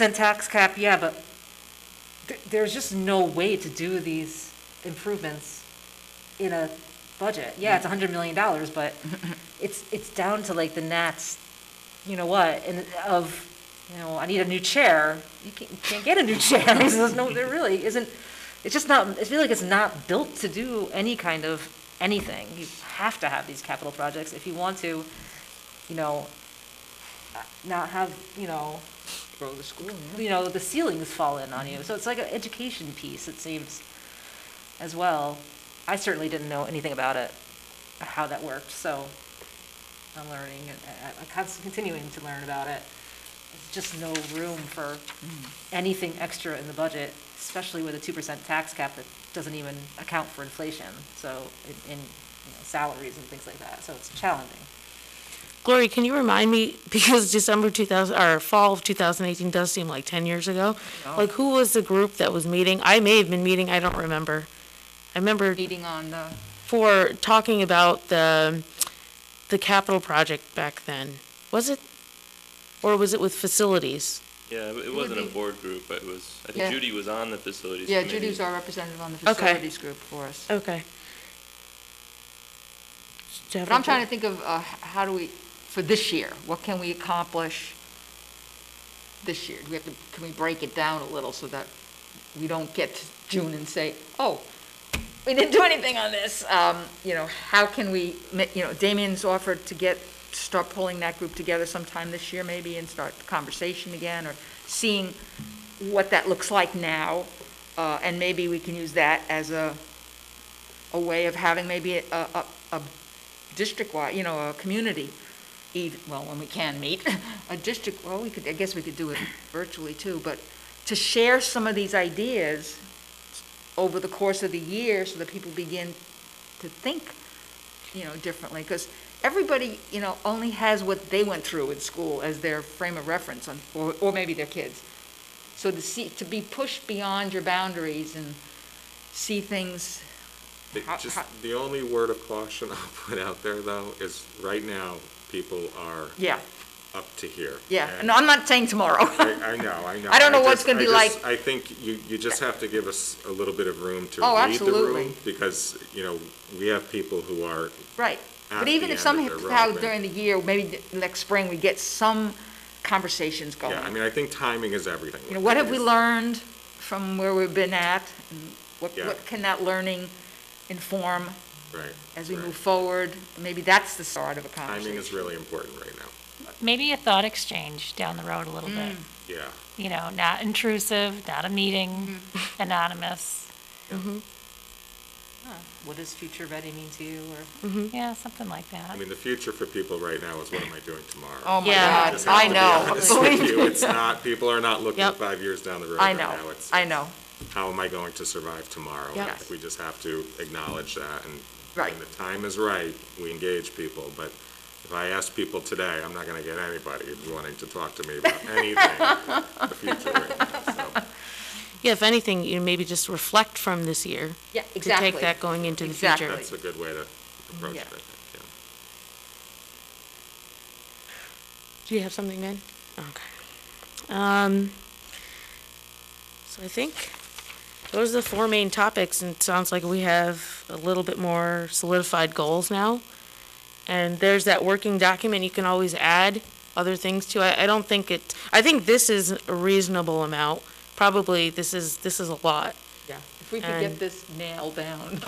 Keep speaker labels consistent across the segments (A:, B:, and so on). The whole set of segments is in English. A: Then tax cap, yeah, but th- there's just no way to do these improvements in a budget. Yeah, it's a hundred million dollars, but it's, it's down to like the gnats, you know what, and of, you know, I need a new chair. You can't, you can't get a new chair. There's no, there really isn't, it's just not, I feel like it's not built to do any kind of anything. You have to have these capital projects if you want to, you know, not have, you know,
B: Grow the school,
A: you know, the ceilings fall in on you. So it's like an education piece, it seems, as well. I certainly didn't know anything about it, how that worked, so I'm learning, and I- I'm const- continuing to learn about it. There's just no room for Mm. anything extra in the budget, especially with a two percent tax cap that doesn't even account for inflation, so, in- in, you know, salaries and things like that, so it's challenging.
C: Gloria, can you remind me, because December 2000, or fall of 2018 does seem like 10 years ago, like, who was the group that was meeting? I may have been meeting, I don't remember. I remember
B: Meeting on the,
C: for talking about the, the capital project back then. Was it? Or was it with facilities?
D: Yeah, but it
B: would
D: wasn't a
B: be-
D: board group, but it was, I
B: Yeah.
D: think Judy was on the facilities
B: yeah,
D: committee.
B: Judy's our representative on the
C: Okay.
B: facilities group for us.
C: Okay.
B: But I'm trying to think of, uh, h- how do we, for this year, what can we accomplish this year? Do we have to, can we break it down a little so that we don't get to June and say, oh, we didn't do anything on this? Um, you know, how can we, ma- you know, Damien's offered to get, start pulling that group together sometime this year maybe and start the conversation again or seeing what that looks like now. Uh, and maybe we can use that as a, a way of having maybe a, a, a district-wide, you know, a community, eve- well, when we can meet, a district, well, we could, I guess we could do it virtually too, but to share some of these ideas over the course of the year so that people begin to think, you know, differently, because everybody, you know, only has what they went through in school as their frame of reference, on- or, or maybe their kids. So to see, to be pushed beyond your boundaries and see things,
E: It
B: How-
E: just,
B: how-
E: the only word of caution I'll put out there though is right now, people are
B: yeah,
E: up to here.
B: yeah,
E: And
B: no, I'm not saying tomorrow.
E: I, I know, I know.
B: I don't know what's
E: just-
B: gonna
E: I
B: be
E: just-
B: like.
E: I think you, you just have to give us a little bit of room to
B: Oh,
E: read the
B: absolutely.
E: room. Because, you know, we have people who are,
B: Right,
E: at
B: but
E: the
B: even if
E: end of their
B: somehow
E: road,
B: during the year, maybe th- next spring, we get some conversations going.
E: yeah, I mean, I think timing is everything.
B: You know, what have we
E: with these.
B: learned from where we've been at? and What,
E: Yeah.
B: what can that learning inform
E: Right.
B: as we
E: right.
B: move forward? Maybe that's the start of a conversation.
E: Timing is really important right now,
F: maybe a thought exchange down the road a little bit.
E: yeah.
F: You know, not intrusive, not a meeting, anonymous,
A: What does future ready mean to you, or?
F: yeah, something like that.
E: I mean, the future for people right now is what am I doing tomorrow?
B: Oh, my
C: Yeah.
B: God,
E: Just have
B: I
E: to be
B: know,
E: honest with
B: believe
E: you. It's not, people are not looking
C: Yep.
E: five years down the road
B: I
E: right
B: know,
E: now. It's-
B: I know,
E: how am I going to survive tomorrow?
C: Yep.
E: I think We just have to acknowledge that, and
B: Right.
E: when the time is right, we engage people, but if I ask people today, I'm not gonna get anybody wanting to talk to me about anything in the future right now, so.
C: Yeah, if anything, you maybe just reflect from this year.
B: yeah,
C: To take
B: exactly.
C: that going into the
B: Exactly.
C: future.
E: That's a good way to approach it,
B: Yeah.
E: I think, yeah.
C: Do you have something, Ben? Okay. Um, so I think those are the four main topics, and it sounds like we have a little bit more solidified goals now. And there's that working document, you can always add other things to. I, I don't think it, I think this is a reasonable amount. Probably, this is, this is a lot.
B: Yeah, if we could get
C: And-
B: this nailed down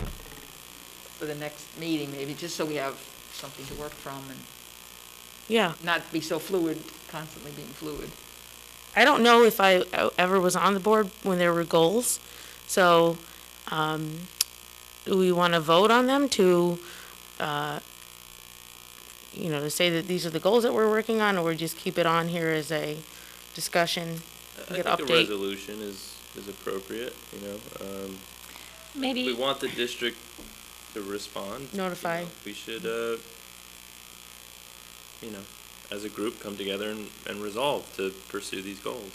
B: for the next meeting, maybe, just so we have something to work from and
C: Yeah.
B: not be so fluid, constantly being fluid.
C: I don't know if I uh, ever was on the board when there were goals, so, um, do we want to vote on them to, uh, you know, to say that these are the goals that we're working on, or just keep it on here as a discussion? Get
D: I think a
C: update.
D: resolution is, is appropriate, you know, um, we
F: Maybe,
D: want the district to respond. you
C: Notify.
D: know. We should, uh, you know, as a group, come together and, and resolve to pursue these goals.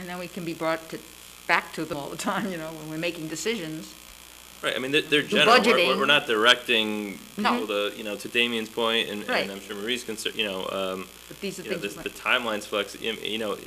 B: And then we can be brought to, back to them all the time, you know, when we're making decisions.
D: Right, I mean, they're, they're general, we're, we're- we're not directing
B: No.
D: people to, you know, to Damien's point, and,
B: Right.
D: and I'm sure Marie's concerned, you know, um,
B: But these are
D: you know,
B: things.
D: this,
B: we might-
D: the timeline's flex, you know,